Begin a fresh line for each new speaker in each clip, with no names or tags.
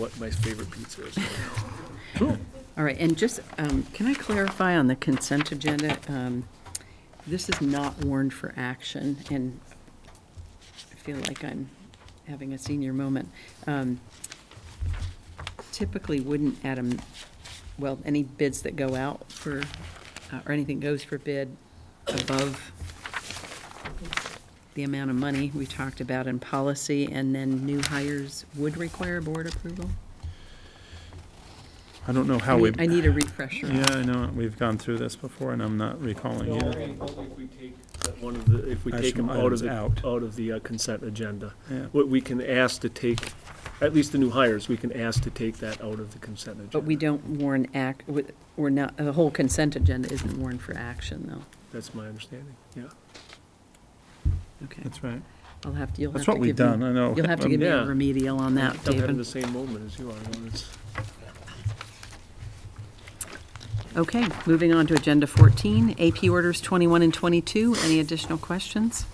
what my favorite pizza is.
All right, and just, um, can I clarify on the consent agenda? Um, This is not warned for action, and I feel like I'm having a senior moment. Um, Typically wouldn't, Adam, well, any bids that go out for, uh, or anything goes for bid above the amount of money we talked about in policy, and then new hires would require board approval?
I don't know
I
how we,
need- I need a refresher.
yeah, I know, we've gone through this before, and I'm not recalling either.
That One of the, if we take
Action
them out of
items
the,
out.
out of the uh, consent agenda.
Yeah.
What we can ask to take, at least the new hires, we can ask to take that out of the consent agenda.
But we don't warn act, with- we're not, the whole consent agenda isn't warned for action, though.
That's my understanding, yeah.
Okay,
That's right.
I'll have to, you'll have
That's
to
what
give me.
we've done, I know.
You'll have to give me a
Yeah.
remedial on that,
I'm having the
David.
same moment as you are, Lawrence.
Okay, moving on to Agenda 14, AP Orders 21 and 22. Any additional questions?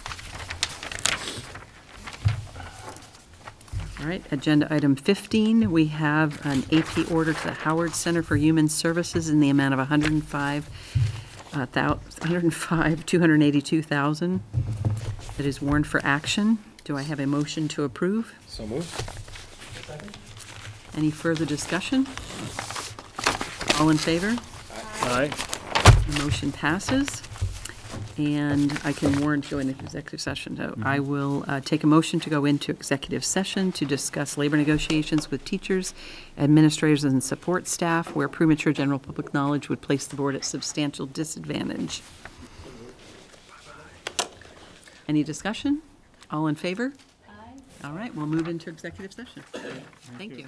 All right, Agenda Item 15, we have an AP order to the Howard Center for Human Services in the amount of 105, uh, thou- 105, 282,000 that is warned for action. Do I have a motion to approve?
So moved.
Any further discussion? All in favor?
Aye,
The Motion passes, and I can warn to go into executive session. So I will uh, take a motion to go into executive session to discuss labor negotiations with teachers, administrators, and support staff where premature general public knowledge would place the board at substantial disadvantage. Any discussion? All in favor? Aye. All right, we'll move into executive session. Thank you.